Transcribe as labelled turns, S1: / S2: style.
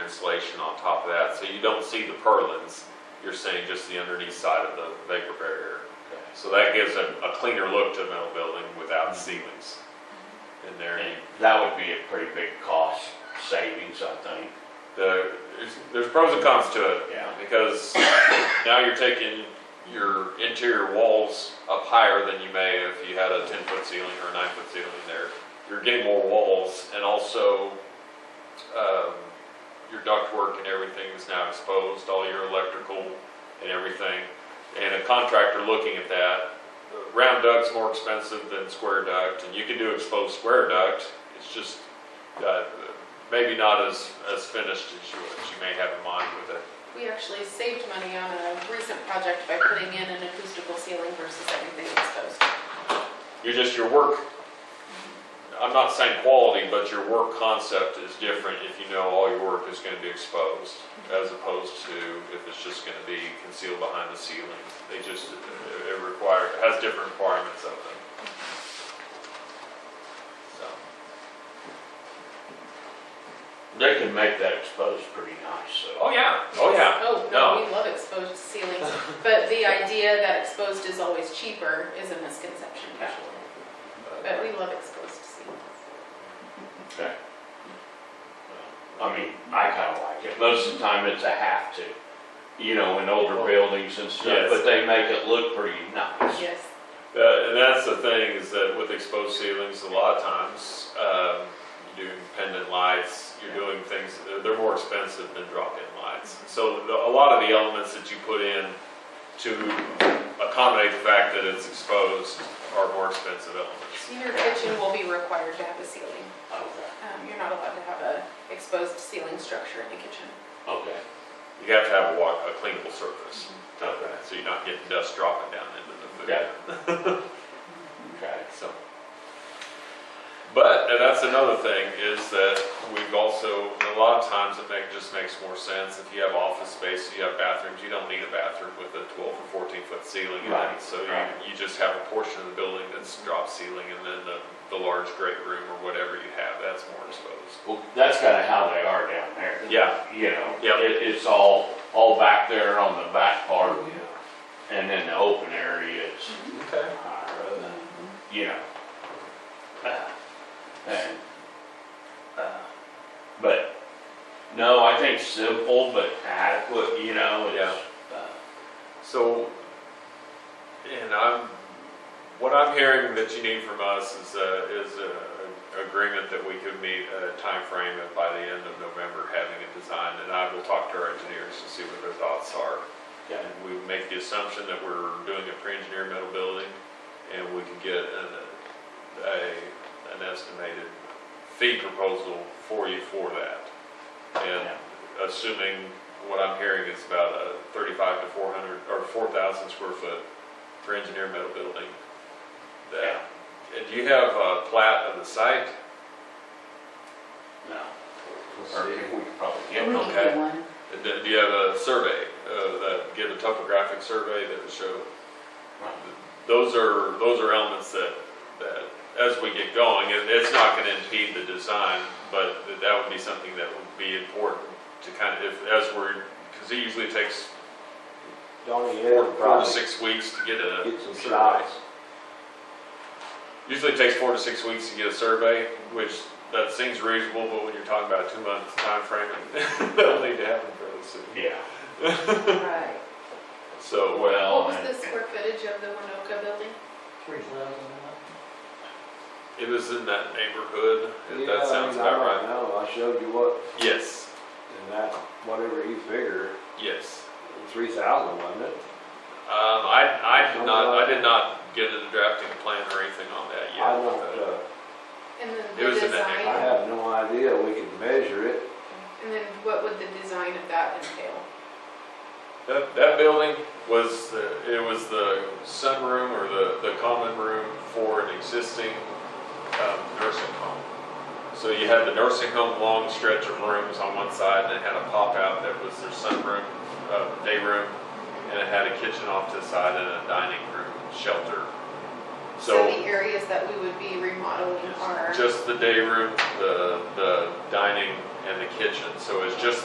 S1: insulation on top of that, so you don't see the purlins. You're seeing just the underneath side of the vapor barrier. So that gives a, a cleaner look to a metal building without ceilings in there.
S2: And that would be a pretty big cost savings, I think.
S1: The, there's, there's pros and cons to it.
S2: Yeah.
S1: Because now you're taking your interior walls up higher than you may if you had a ten foot ceiling or a nine foot ceiling there. You're getting more walls and also, um, your ductwork and everything is now exposed, all your electrical and everything. And a contractor looking at that, round duct's more expensive than square duct, and you can do exposed square duct. It's just, uh, maybe not as, as finished as you, as you may have in mind with it.
S3: We actually saved money on a recent project by putting in an acoustical ceiling versus everything exposed.
S1: You're just, your work, I'm not saying quality, but your work concept is different if you know all your work is gonna be exposed as opposed to if it's just gonna be concealed behind the ceiling. They just, it- it require, it has different requirements of them. So,
S2: They can make that exposed pretty nice, so.
S1: oh yeah, oh yeah.
S3: Oh,
S1: No.
S3: no, we love exposed ceilings, but the idea that exposed is always cheaper is a misconception, actually. But we love exposed ceilings.
S2: Okay. I mean, I kinda like it. Most of the time it's a have to, you know, in older buildings and stuff,
S1: Yes.
S2: but they make it look pretty nice.
S3: Yes,
S1: Uh, and that's the thing is that with exposed ceilings, a lot of times um, you're doing pendant lights, you're doing things they're more expensive than drop-in lights. So the, a lot of the elements that you put in to accommodate the fact that it's exposed are more expensive elements.
S3: your kitchen will be required to have a ceiling.
S2: Okay,
S3: Um, You're not allowed to have a exposed ceiling structure in the kitchen.
S2: okay.
S1: You have to have a, wa- a cleanable surface,
S2: Okay.
S1: so you're not getting dust dropping down into the food.
S2: Yeah. Okay.
S1: So, but and that's another thing is that we've also a lot of times it make, just makes more sense if you have office space, you have bathrooms, you don't need a bathroom with a 12 or 14 foot ceiling. in it.
S2: Right,
S1: So
S2: right.
S1: you, you just have a portion of the building that's drop ceiling, and then the, the large great room or whatever you have that's more exposed.
S2: Well, that's kinda how they are down there.
S1: Yeah,
S2: You know,
S1: Yep.
S2: it, it's all, all back there on the back part.
S1: Oh,
S2: And then the open area is
S1: okay.
S2: higher than, you know. uh, And, uh, but, no, I think simple but adequate, you know, is, uh,
S1: So, and I'm, what I'm hearing that you need from us is a, is a an agreement that we could meet a timeframe and by the end of November having it designed. And I will talk to our engineers to see what their thoughts are.
S2: yeah,
S1: And we make the assumption that we're doing a pre-engineered metal building and we can get an, a, an estimated fee proposal for you for that. And assuming what I'm hearing is about a thirty-five to four hundred, or four thousand square foot for engineer metal building.
S2: Yeah.
S1: That, and do you have a plat of the site?
S2: no. Or we could probably get
S1: We
S2: one.
S1: can get And Do do you have a survey, uh, that, give a topographic survey that would show? Those are, those are elements that, that, as we get going, it, it's not gonna impede the design, but that would be something that would be important to kind of, if, as we're, cause it usually takes
S4: Donnie, you
S1: four,
S4: ever
S1: four to
S4: probably
S1: six weeks to get a.
S4: get some
S1: survey.
S4: shots?
S1: Usually it takes four to six weeks to get a survey, which that seems reasonable, but when you're talking about a two-month timeframe, that'll need to happen fairly soon.
S2: Yeah,
S3: Right.
S1: So, well,
S2: well,
S3: What was
S2: and-
S3: the square footage of the Winoka building?
S4: Three thousand.
S1: it was in that neighborhood, if that sounds about right.
S4: No, I showed you what,
S1: Yes,
S4: and that, whatever you figure,
S1: yes.
S4: three thousand, wasn't it?
S1: Um, I, I did not, I did not get into drafting a plan or anything on that yet.
S4: I don't, uh,
S3: And then
S1: It was
S3: the
S1: in that
S4: I
S3: design,
S4: have no idea, we could measure it.
S3: and then what would the design of that entail?
S1: That, that building was, the- it was the sunroom or the, the common room for an existing um, nursing home. So you had the nursing home long stretch of rooms on one side and it had a pop out that was their sunroom, uh, day room, and it had a kitchen off to the side and a dining room shelter.
S3: So the areas that we would be remodeling are.
S1: Just the day room, the, the dining and the kitchen. So it's just